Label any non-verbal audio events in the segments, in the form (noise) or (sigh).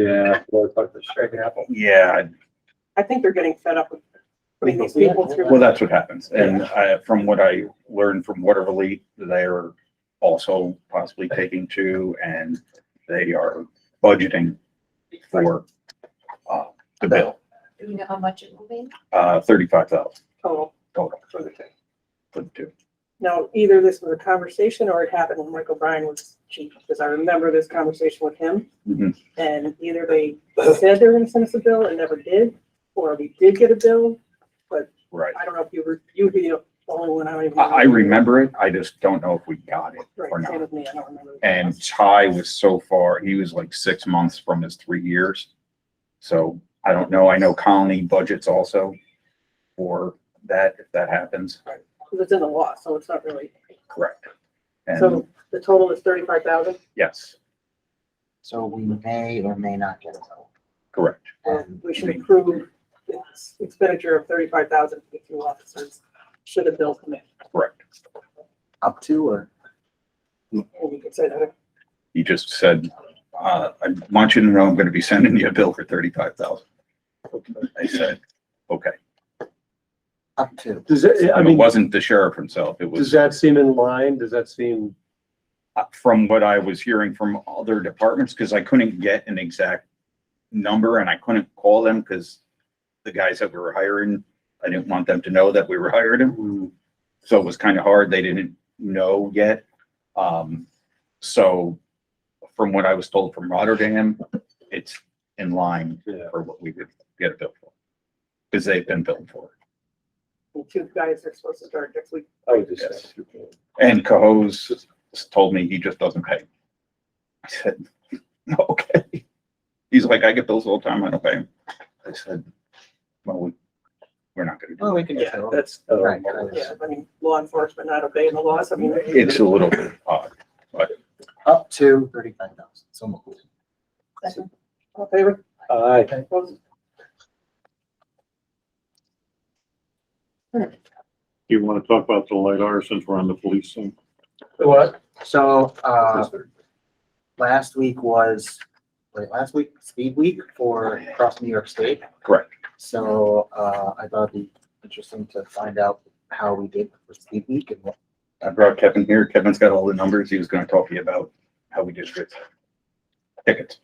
Yeah, well, it's like the shaking apple. Yeah, I- I think they're getting fed up with putting these Yeah. people through. well, that's what happens. And I, from what I learned from Waterville, they are also possibly taking two and they are budgeting for, uh, the bill, Do you know how much it will be? uh, thirty-five thousand total total for the thing. for the two. Now, either this was a conversation or it happened when Michael Bryan was chief, because I remember this conversation with him. Mhm. And either (laughs) they said they were gonna send us a bill and never did, or we did get a bill. Right. I don't know if you were, you would be the only one I don't even. I, I remember it. I just don't know if we got it or Right, not. same with me, I don't remember. And Ty was so far, he was like six months from his three years. So I don't know. I know Colony budgets also for that, if that happens. Because it's in the law, so it's not really, Correct. And so the total is thirty-five thousand, yes, So we may or may not get a vote. correct. And we should approve this expenditure of thirty-five thousand for the two officers, should a bill come in. Correct. up to or And you could say that, He just said, uh, I want you to know I'm going to be sending you a bill for thirty-five thousand. I said, okay. up to. Does it, I And it mean, wasn't the sheriff himself. It does was that seem in line? Does that seem, uh, from what I was hearing from other departments, because I couldn't get an exact number and I couldn't call them because the guys that we were hiring, I didn't want them to know that we were (laughs) hiring them. mm, So it was kind of hard. They didn't know yet. Um, so from what I was told from Rotterdam, it's in line yeah, for what we would get a bill for. Because they've been billed for. the two guys are supposed to start next week. I would just Yes. say. And Cahoes told me he just doesn't pay. I said, (laughs) okay. He's like, I get bills all the time. I don't pay 'em." I said, well, we- we're not gonna do Well, we can just. Yeah, that's, Um, Right. yeah, I mean, law enforcement not obeying the laws, I mean. it. It's a little bit odd. Up to thirty-five thousand. So moved. Second. All in favor? Aye. Opposed? Do you want to talk about the LiDAR since we're on the police thing? What? So, uh, last week was, wait, last week, speed week for across New York State. Correct. So, uh, I thought it'd be interesting to find out how we did for speed week and what I brought Kevin here. Kevin's got all the numbers. He was gonna talk to you about how we distribute tickets.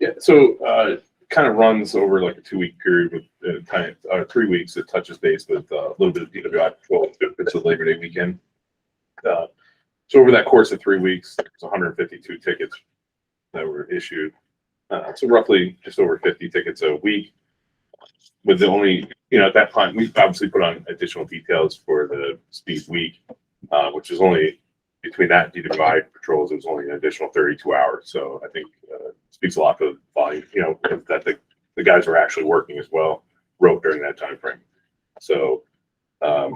Yeah, so uh, kind of runs over like a two week period with uh, kind of uh, three weeks. It touches base with uh, a little bit of DWI patrol if it's a Labor Day weekend. Uh, so over that course of three weeks, there's 152 tickets that were issued. Uh, so roughly just over 50 tickets a week. With the only, you know, at that time, we obviously put on additional details for the speed week, uh, which is only between that and DWI patrols, it was only an additional 32 hours. So I think uh, speaks a lot of volume, you know, that the, the guys were actually working as well, wrote during that time frame. So, um,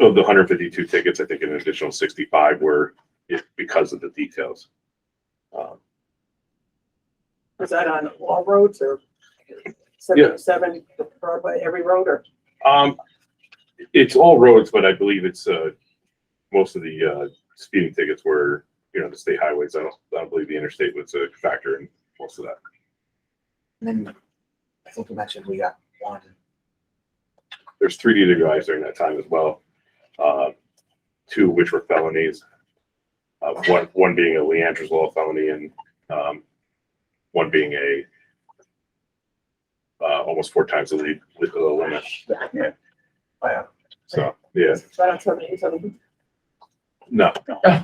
of the hundred fifty-two tickets, I think an additional sixty-five were it- because of the details. Um, Was that on all roads or seventy-seven Broadway, every road or? Um, it's all roads, but I believe it's, uh, most of the, uh, speeding tickets were, you know, the state highways. I don't, I don't believe the interstate was a factor in most of that. And then I think you mentioned we got one. There's three DWIs during that time as well, uh, two of which were felonies. Uh, one, one being a Leander's Law felony and, um, one being a uh, almost four times the lead, the limit. Yeah. Oh, Wow. So, yeah, Is that on seventy-seven? no. Uh,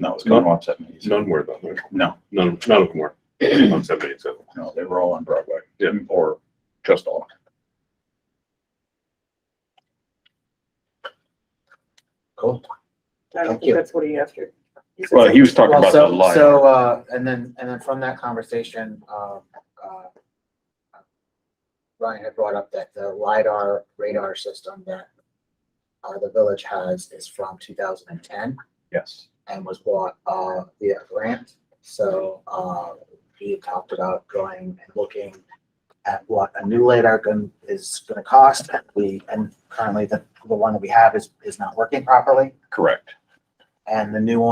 No, it's going off seven days. none were, though. No, none, none of them were (clears throat) on seven eight seven. no, they were all on Broadway. Yeah. Or just all. Cool. I don't Thank think you. that's what he asked you. He said Well, he was talking Well, about the so, LiDAR. so, uh, and then, and then from that conversation, uh, uh, Ryan had brought up that the LiDAR radar system that uh, the village has is from two thousand and ten Yes. and was bought, uh, via grant. So, uh, he talked about going and looking at what a new LiDAR gun is gonna cost. and We, and currently the, the one that we have is, is not working properly. Correct. and the new one.